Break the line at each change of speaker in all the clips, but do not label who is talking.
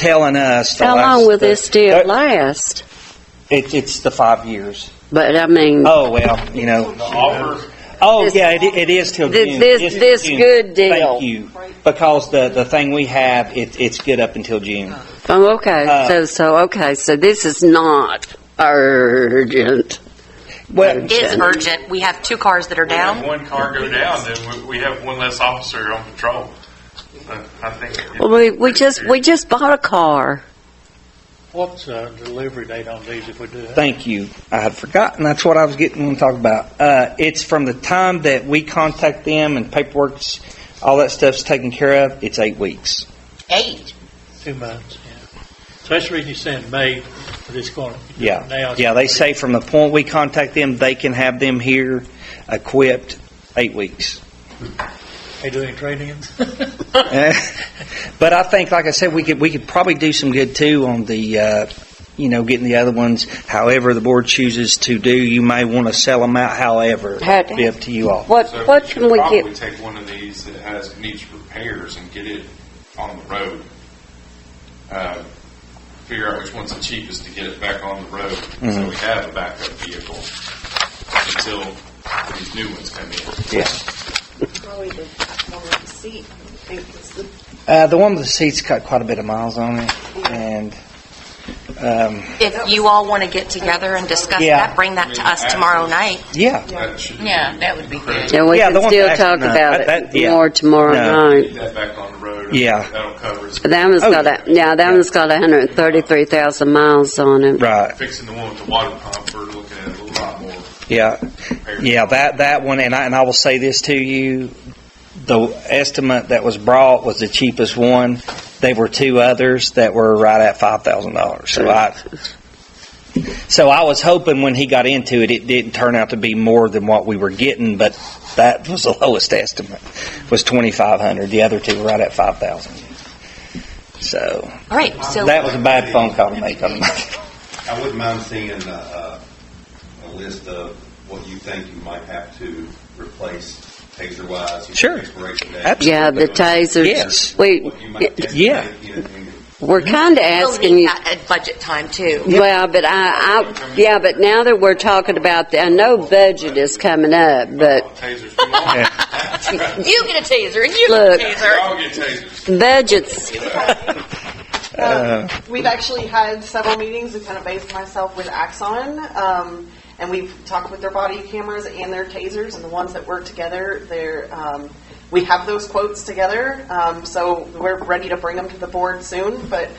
telling us the
How
last- Uh,
long will this deal
that-
last?
It, it's the five years.
But I mean,
Oh well, you know. Oh
This-
yeah, it, it is till
This-
June.
this-
It's till
this
June.
good deal.
Thank you, because the the thing we have, it, it's good up until June.
oh, okay,
uh,
so so okay, so this is not urgent.
Well,
is urgent. We have two cars that are
We have
down.
one car go down, then we, we have one less officer on patrol. So I think. it-
Well, we we just we just bought a car.
What's the uh, delivery date on these if we do that?
thank you. I had forgotten. That's what I was getting to talk about. Uh, it's from the time that we contact them and paperwork's all that stuff's taken care of. It's eight weeks.
Eight.
Two months, yeah. So that's the reason you're saying May, but it's going to.
Yeah,
Now.
yeah. They say from the point we contact them, they can have them here equipped eight weeks.
They do any trade-ins?
Eh, but I think, like I said, we could we could probably do some good too on the, uh, you know, getting the other ones. However, the board chooses to do, you may want to sell them out. However,
How-
it'd be up to you all.
What
So
what can
should
we
Probably
get?
take one of these that has, needs repairs and get it on the road. Uh, Figure out which one's the cheapest to get it back on the road,
Mm-hmm.
so we have a backup vehicle until these new ones come in.
Yeah.
Probably the one with the seat, I think it's the
Uh, the one with the seats got quite a bit of miles on it, and um,
If you all want to get together and discuss
Yeah.
that, bring that to us tomorrow night.
yeah,
That should be.
Yeah, that would be good.
And we
Yeah, the
can
ones
still
that-
talk
no,
about
that-
it
that- yeah.
more tomorrow
No.
night.
Get that back on the road.
Yeah.
That'll cover us.
That one's
Oh,
got
yeah.
a, yeah, that one's got 133,000 miles on it.
right.
Fixing the one with the water pump, we're looking at a lot more.
Yeah, yeah, that, that one, and I, and I will say this to you, the estimate that was brought was the cheapest one. There were two others that were right at five thousand dollars, so I, so I was hoping when he got into it, it didn't turn out to be more than what we were getting, but that was the lowest estimate, was twenty-five hundred, the other two were right at five thousand. So,
All right, so
that was a bad phone call to make on my.
I wouldn't mind seeing a, a, a list of what you think you might have to replace taser-wise. your
Sure.
expiration date,
Absolutely.
Yeah, the tasers.
Yes.
We,
What you might estimate
Yeah.
in- in-
we're kind of
we'll
asking
need
you,
that at budget time too.
well, but I, I, yeah, but now that we're talking about, the- I know budget is coming up, but
Tasers, we all get
You get a taser and you
Look.
get a
we
taser.
all get tasers.
budget's,
Um, We've actually had several meetings to kind of base myself with Axon, um, and we've talked with their body cameras and their tasers, and the ones that work together, they're, um, we have those quotes together, um, so we're ready to bring them to the board soon, but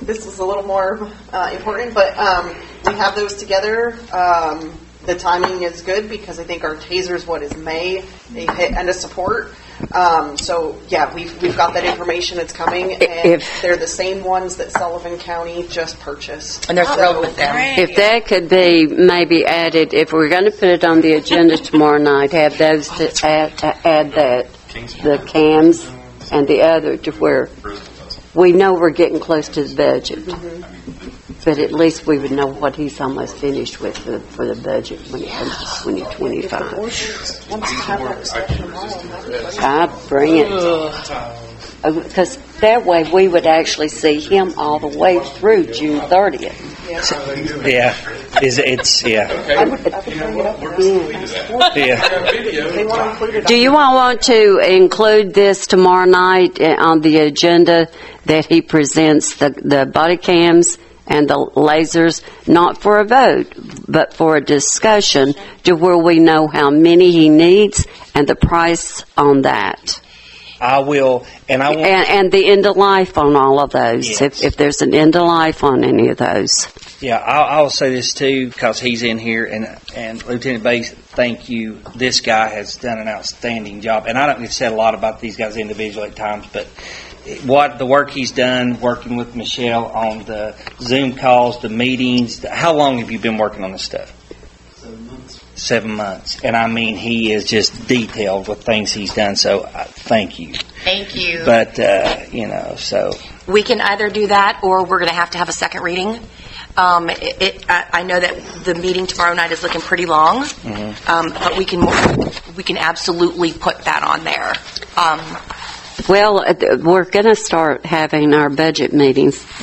this is a little more, uh, important, but, um, we have those together, um, the timing is good, because I think our taser's what is May, they hit end of support, um, so, yeah, we've, we've got that information, it's coming, and
If-
they're the same ones that Sullivan County just purchased.
And they're thrilled with them.
if that could be maybe added, if we're going to put it on the agenda tomorrow night, have those to add, uh, add that, the cams and the other to where we know we're getting close to the budget. But at least we would know what he's almost finished with for, for the budget when it comes to 2025.
Once you have that discussion tomorrow,
I bring it. Because that way, we would actually see him all the way through June 30th.
Yeah, is, it's, yeah, yeah.
they want to include it.
Do you all want to include this tomorrow night uh, on the agenda that he presents the, the body cams and the lasers, not for a vote, but for a discussion to where we know how many he needs and the price on that?
I will, and I will,
And, and the end of life on all of those,
Yes.
if, if there's an end of life on any of those.
yeah, I'll, I'll say this too, because he's in here, and, and Lieutenant Bates, thank you. This guy has done an outstanding job, and I don't get said a lot about these guys individually at times, but what, the work he's done, working with Michelle on the Zoom calls, the meetings, the- how long have you been working on this stuff? Seven months, and I mean, he is just detailed with things he's done, so I, thank you.
Thank you.
But, uh, you know, so,
We can either do that, or we're going to have to have a second reading. Um, it- it- I I know that the meeting tomorrow night is looking pretty long, um, but we can, we can absolutely put that on there. Um,
Well, uh, we're going to start having our budget meetings